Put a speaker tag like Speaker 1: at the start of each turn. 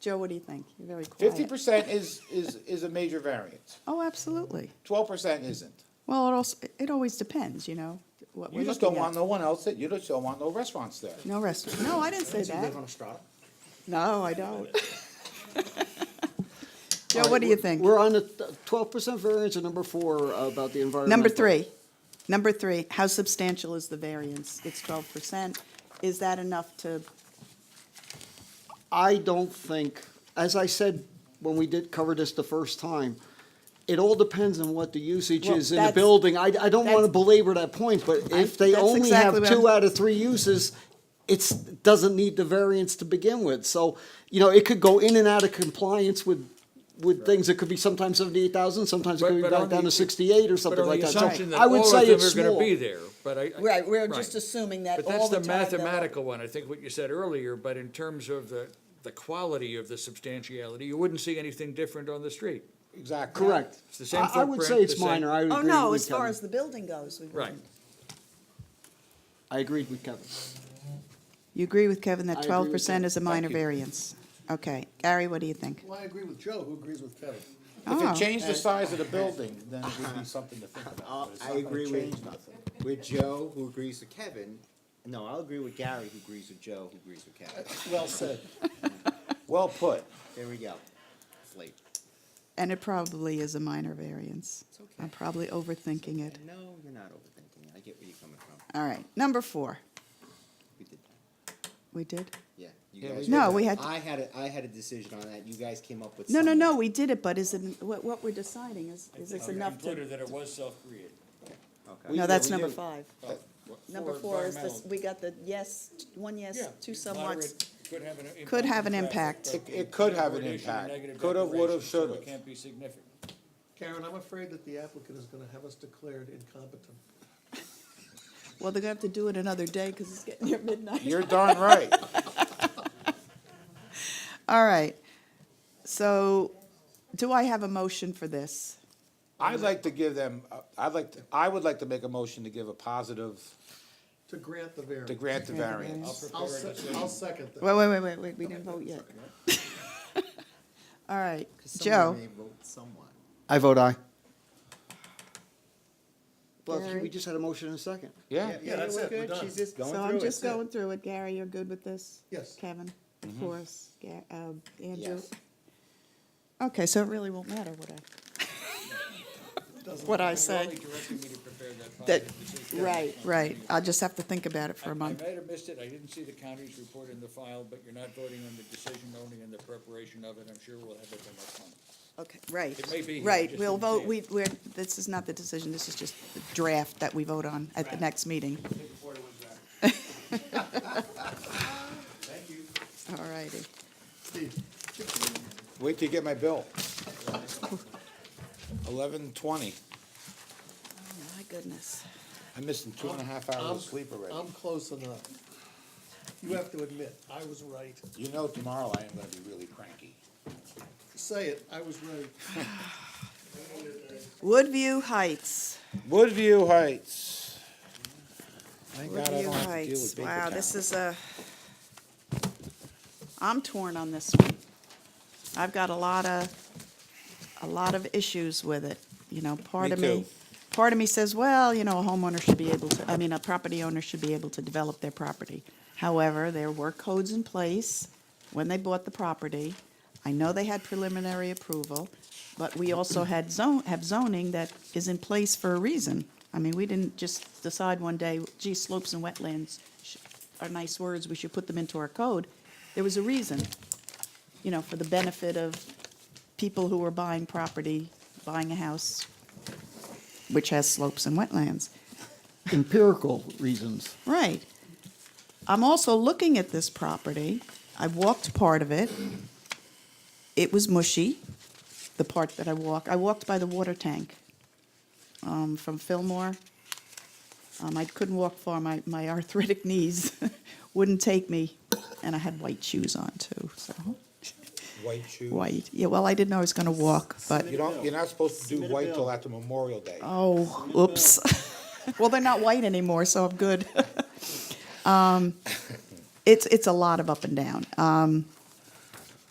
Speaker 1: Joe, what do you think? You're very quiet.
Speaker 2: Fifty percent is, is, is a major variance.
Speaker 1: Oh, absolutely.
Speaker 2: Twelve percent isn't.
Speaker 1: Well, it also, it always depends, you know, what
Speaker 2: You
Speaker 1: we're
Speaker 2: just
Speaker 1: looking
Speaker 2: don't want
Speaker 1: at.
Speaker 2: no one else, that- you just don't want no restaurants there.
Speaker 1: No restaurant, no, I didn't say that. No, I don't. Joe, what do you think?
Speaker 3: We're on the twelve percent variance at number four about the environmental.
Speaker 1: Number three, number three, how substantial is the variance? It's twelve percent. Is that enough to,
Speaker 3: I don't think, as I said when we did cover this the first time, it all depends on what the usage
Speaker 1: Well,
Speaker 3: is in the
Speaker 1: that's-
Speaker 3: building. I, I don't want to
Speaker 1: that's-
Speaker 3: belabor that point, but
Speaker 1: I-
Speaker 3: if they
Speaker 1: that's
Speaker 3: only
Speaker 1: exactly
Speaker 3: have
Speaker 1: what
Speaker 3: two
Speaker 1: I'm-
Speaker 3: out of three uses, it's, doesn't need the variance to begin with. So, you know, it could go in and out of compliance with, with things. It could be sometimes seventy-eight thousand, sometimes it
Speaker 4: But-
Speaker 3: could be
Speaker 4: but on
Speaker 3: back down
Speaker 4: the-
Speaker 3: to sixty-eight or
Speaker 4: But
Speaker 3: something
Speaker 4: on
Speaker 3: like
Speaker 4: the
Speaker 3: that. So
Speaker 4: assumption that
Speaker 3: I would
Speaker 4: all
Speaker 3: say
Speaker 4: of them
Speaker 3: it's
Speaker 4: are gonna
Speaker 3: small.
Speaker 4: be there, but I. I-
Speaker 5: Right, we're just
Speaker 4: right.
Speaker 5: assuming that
Speaker 4: But that's
Speaker 5: all the
Speaker 4: the
Speaker 5: time. that-
Speaker 4: mathematical one, I think what you said earlier, but in terms of the, the quality of the substantiality, you wouldn't see anything different on the street.
Speaker 2: Exactly.
Speaker 3: Correct.
Speaker 4: It's the same
Speaker 3: I- I would
Speaker 4: footprint,
Speaker 3: say
Speaker 4: the
Speaker 3: it's
Speaker 4: same-
Speaker 3: minor. I would
Speaker 5: Oh,
Speaker 3: agree
Speaker 5: no,
Speaker 3: with
Speaker 5: as far
Speaker 3: Kevin.
Speaker 5: as the building goes, we
Speaker 4: Right.
Speaker 5: wouldn't.
Speaker 3: I agreed with Kevin.
Speaker 1: you agree with Kevin
Speaker 3: I
Speaker 1: that
Speaker 3: agree
Speaker 1: twelve
Speaker 3: with
Speaker 1: percent
Speaker 3: Kevin.
Speaker 1: is a minor
Speaker 3: you.
Speaker 1: variance? Okay, Gary, what do you think?
Speaker 6: Well, I agree with Joe, who agrees with Kevin.
Speaker 2: If
Speaker 1: Oh.
Speaker 2: it changed the size of the building, then it would be something to think about. but it's
Speaker 7: I
Speaker 2: not gonna
Speaker 7: agree with-
Speaker 2: change nothing.
Speaker 7: with Joe, who agrees with Kevin. No, I'll agree with Gary, who agrees with Joe, who agrees with Kevin.
Speaker 6: Well said.
Speaker 2: Well put.
Speaker 7: There we go. It's late.
Speaker 1: And it probably is a minor variance.
Speaker 7: It's okay.
Speaker 1: I'm probably overthinking it.
Speaker 7: No, you're not overthinking. it. I get where you're coming from.
Speaker 1: All right, number four,
Speaker 7: We did that.
Speaker 1: we did?
Speaker 7: Yeah. you
Speaker 2: Yeah,
Speaker 7: guys
Speaker 2: we
Speaker 7: did
Speaker 1: No,
Speaker 7: that.
Speaker 1: we had-
Speaker 7: I had a, I had a decision on that. You guys came up with.
Speaker 1: No, no,
Speaker 7: something.
Speaker 1: no, we did it, but is it, what, what we're deciding is, is this enough to?
Speaker 4: that it was self-created.
Speaker 7: Okay.
Speaker 1: No,
Speaker 2: yeah,
Speaker 1: that's
Speaker 2: we
Speaker 1: number
Speaker 2: did.
Speaker 1: five. Number four is this, we got the yes, one yes, two somewhats.
Speaker 4: Could have an impact.
Speaker 1: Could have
Speaker 4: on
Speaker 1: an
Speaker 4: traffic,
Speaker 1: impact.
Speaker 4: but
Speaker 2: It- it could have an
Speaker 4: degradation or
Speaker 2: impact.
Speaker 4: negative
Speaker 2: Coulda, woulda,
Speaker 4: degradation, so
Speaker 2: shoulda.
Speaker 4: It can't be significant.
Speaker 6: Karen, I'm afraid that the applicant is gonna have us declared incompetent.
Speaker 1: Well, they're gonna have to do it another day because it's getting near midnight.
Speaker 2: You're darn right.
Speaker 1: All right. So do I have a motion for this?
Speaker 2: I'd like to give them, uh, I'd like, to- I would like to make a motion to give a positive,
Speaker 6: To grant the
Speaker 2: to
Speaker 6: variance.
Speaker 2: grant the
Speaker 1: Grant the
Speaker 2: variance.
Speaker 6: I'll, se- I'll second that.
Speaker 1: Wait, wait, wait, wait, wait, we didn't vote yet. All right,
Speaker 7: 'Cause someone
Speaker 1: Joe,
Speaker 7: may vote someone.
Speaker 3: I vote aye. But
Speaker 1: Gary?
Speaker 3: we just had a motion and a second.
Speaker 2: Yeah,
Speaker 6: Yeah, that's
Speaker 1: we're
Speaker 6: it, we're
Speaker 1: good.
Speaker 6: done.
Speaker 7: She's just going
Speaker 1: so
Speaker 7: through
Speaker 1: I'm
Speaker 7: it.
Speaker 1: just going through it. Gary, you're good with this?
Speaker 6: Yes.
Speaker 1: Kevin,
Speaker 4: Mm-hmm.
Speaker 1: of course, Ga- um, Andrew?
Speaker 7: Yes.
Speaker 1: Okay, so it really won't matter what I, what I say.
Speaker 4: You're only directing me to prepare that
Speaker 1: That,
Speaker 4: positive decision.
Speaker 1: right, right. I'll just have to think about it for
Speaker 4: I-
Speaker 1: a
Speaker 4: I
Speaker 1: month.
Speaker 4: might have missed it, I didn't see the county's report in the file, but you're not voting on the decision, only in the preparation of it, I'm sure we'll have it by next month.
Speaker 1: Okay, right.
Speaker 4: It may be here,
Speaker 1: Right,
Speaker 4: just
Speaker 1: we'll
Speaker 4: didn't see
Speaker 1: vote,
Speaker 4: it.
Speaker 1: we, we're, this is not the decision, this is just the draft that we vote on at the next meeting. All righty.
Speaker 6: Steve,
Speaker 2: wait till you get my bill. Eleven twenty.
Speaker 1: Oh, My goodness.
Speaker 2: I'm missing two and a half hours
Speaker 6: I'm-
Speaker 2: of sleep already.
Speaker 6: I'm close enough. You have to admit, I was right.
Speaker 2: You know tomorrow I am gonna be really cranky.
Speaker 6: Say it, I was right.
Speaker 1: Woodview Heights,
Speaker 2: Woodview Heights. Thank God I
Speaker 1: Woodview
Speaker 2: don't have to deal with
Speaker 1: Heights.
Speaker 2: paper
Speaker 1: Wow, this
Speaker 2: towels.
Speaker 1: is a, I'm torn on this one. I've got a lot of, a lot of issues with it, you know, part
Speaker 2: Me
Speaker 1: of me.
Speaker 2: too.
Speaker 1: Part of me says, well, you know, a homeowner should be able to, I mean, a property owner should be able to develop their property. However, there were codes in place when they bought the property. I know they had preliminary approval, but we also had zone, have zoning that is in place for a reason. I mean, we didn't just decide one day, gee, slopes and wetlands sh- are nice words, we should put them into our code. There was a reason, you know, for the benefit of people who were buying property, buying a house, which has slopes and wetlands.
Speaker 3: Empirical reasons.
Speaker 1: Right. I'm also looking at this property. I walked part of it. It was mushy, the part that I walked. I walked by the water tank um, from Fillmore. Um, I couldn't walk far. My, my arthritic knees wouldn't take me, and I had white shoes on too. So
Speaker 2: White shoes.
Speaker 1: white. Yeah. Well, I didn't know I was going to walk, but
Speaker 2: You don't, you're not supposed to do white till after Memorial Day.
Speaker 1: Oh, oops. Well, they're not white anymore, so I'm good. Um, It's, it's a lot of up and down. Um,